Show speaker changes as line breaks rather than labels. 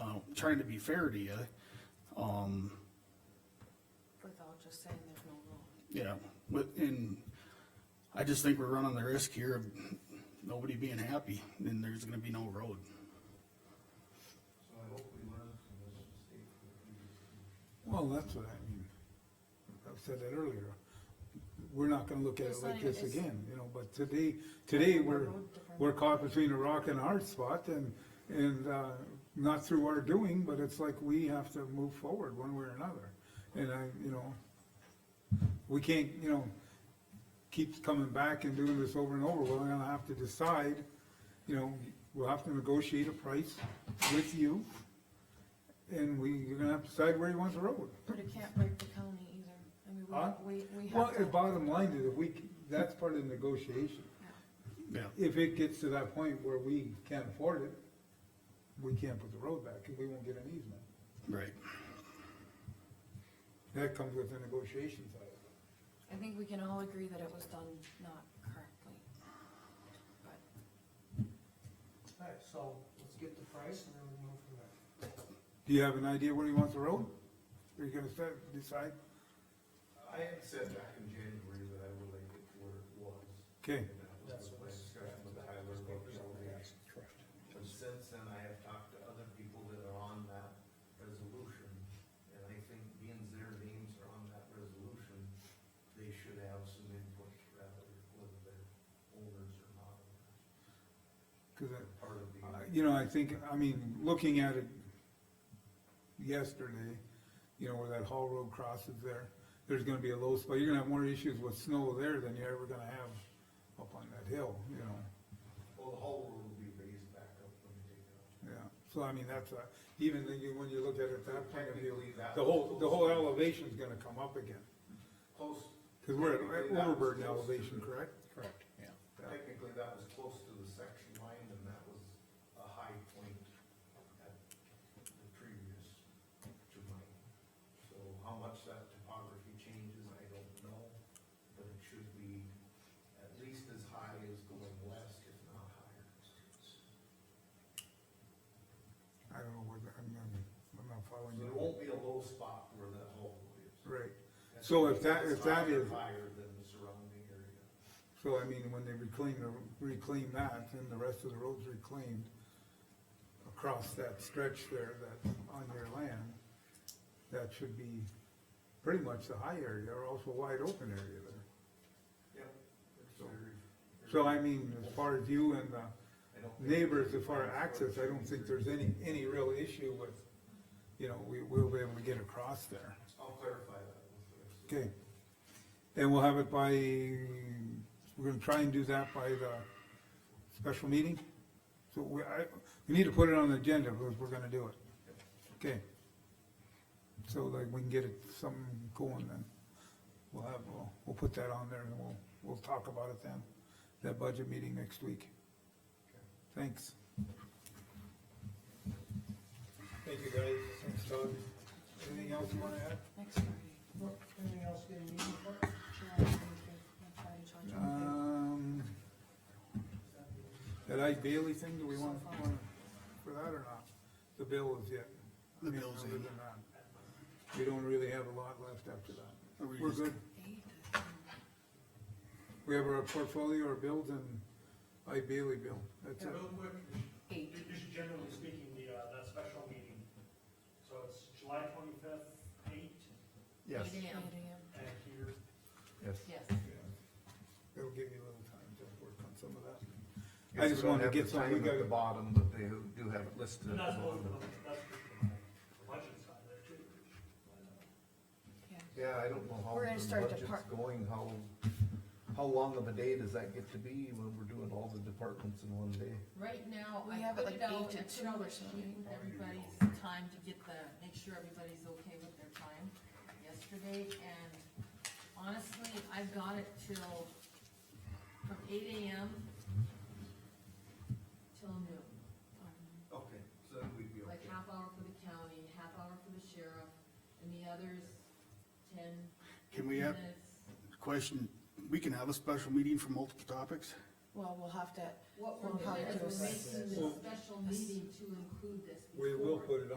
um, trying to be fair to you, um,
without just saying there's no rule.
yeah, but, and I just think we're running the risk here of nobody being happy, and there's gonna be no road.
So I hope we learn from this mistake. that we did.
Well, that's what I mean. I said that earlier. We're not gonna look at it
It's not
like
even-
this
it's-
again, you know, but today, today, we're, we're caught between a rock and a hard spot and, and, uh, not through our doing, but it's like we have to move forward one way or another. And I, you know, we can't, you know, keep coming back and doing this over and over. We're gonna have to decide, you know, we'll have to negotiate a price with you. And we, you're gonna have to decide where you want the road.
But it can't break the county either. I mean,
Huh?
we, we, we
Well,
have
the
to.
bottom line is, if we, c- that's part of the negotiation.
Yeah,
If it gets to that point where we can't afford it, we can't put the road back, and we won't get an easement.
right.
That comes with the negotiation side. of it.
I think we can all agree that it was done not correctly. But
Alright, so let's get the price and then we move from there.
Do you have an idea where you want the road? Are you gonna set, decide?
I had said back in January that I would like it to where it was.
Okay,
And that was my discussion with Tyler about zoning. But since then, I have talked to other people that are on that resolution, and I think being their names are on that resolution, they should have some input rather whether they're owners or not. owners.
cause I,
They're Part of the.
Uh, You know, I think, I mean, looking at it yesterday, you know, where that Hall Road crosses there, there's gonna be a low spot, you're gonna have more issues with snow there than you're ever gonna have up on that hill, you know,
Well, the whole road will be raised back up when they take it out.
yeah. So I mean, that's a, even when you- when you look at it that point of view,
Technically, that
the whole, the whole
was-
elevation's gonna come up again.
Close.
Cause we're at
technically, that was
overburden
close to
elevation,
the-
correct?
Correct, yeah.
Yeah.
Technically, that was close to the section line, and that was a high point at the previous to mine. So how much that topography changes, I don't know, but it should be at least as high as going west, if not higher.
I don't know where, the- I'm, I'm I'm not
So
following
there
you.
won't be a low spot where that hole is.
Right, So if that-
It's
if that
higher-
is-
Higher than the surrounding area.
So I mean, when they reclaim, the- reclaim that, then the rest of the road's reclaimed across that stretch there that's on your land, that should be pretty much the high area or also wide open area there.
Yep. it's
So-
very-
So I mean, as far as you and the
I don't think-
neighbors, as far as access, I don't think there's any, any real issue with, you know, we, we'll be able to get across there.
I'll clarify that with the rest of the-
Okay. And we'll have it by, we're gonna try and do that by the special meeting? So we, I, we need to put it on the agenda because we're gonna do it. Okay. So like we can get it, something going then. We'll have, we'll, we'll put that on there and we'll, we'll talk about it then, that budget meeting next week. Thanks. Thank you guys. Thanks Todd. Anything else you wanna add?
next Friday,
Anything else getting needed for?
July twenty-fifth, that's Friday, July twenty-fifth.
Um, that Ike Bailey thing, do we want, want for that or not? The bill is yet. I
The
mean,
bill's
other
in.
than that, We don't really have a lot left after that.
Are we
We're
just-
good.
Eight,
We have our portfolio, our bills and Ike Bailey bill. That's it.
Real quick,
eight.
Ju- Just generally speaking, the, uh, that special meeting, so it's July twenty-fifth, eight,
Eight AM.
and here,
Yes.
Yes.
It'll give you a little time to work on some of that.
Yes,
I just
we don't
wanted to
have
get
the
some-
time
we
at
gotta-
The bottom, but they do have it listed.
and that's both, for the- that's for the budget side there too.
Yeah.
Yeah, I don't know how
We're gonna
the
start to
budget's
part-
going, how, how long of a day does that get to be when we're doing all the departments in one day?
Right now,
We
I
have it
put
like
it out,
eight
I
to
put
two
out
or
a
something.
sheet with everybody's time to get the, make sure everybody's okay with their time yesterday, and honestly, I've got it till, from eight AM till noon.
Okay, so that we'd be
Like half hour for the county, half hour for the sheriff, and the others, ten
Can we have,
minutes.
question, we can have a special meeting for multiple topics?
Well, we'll have to,
What
Well,
we're
how
doing
to
is we're
assess
making
this.
this special meeting to include this
We will
before.
put it on.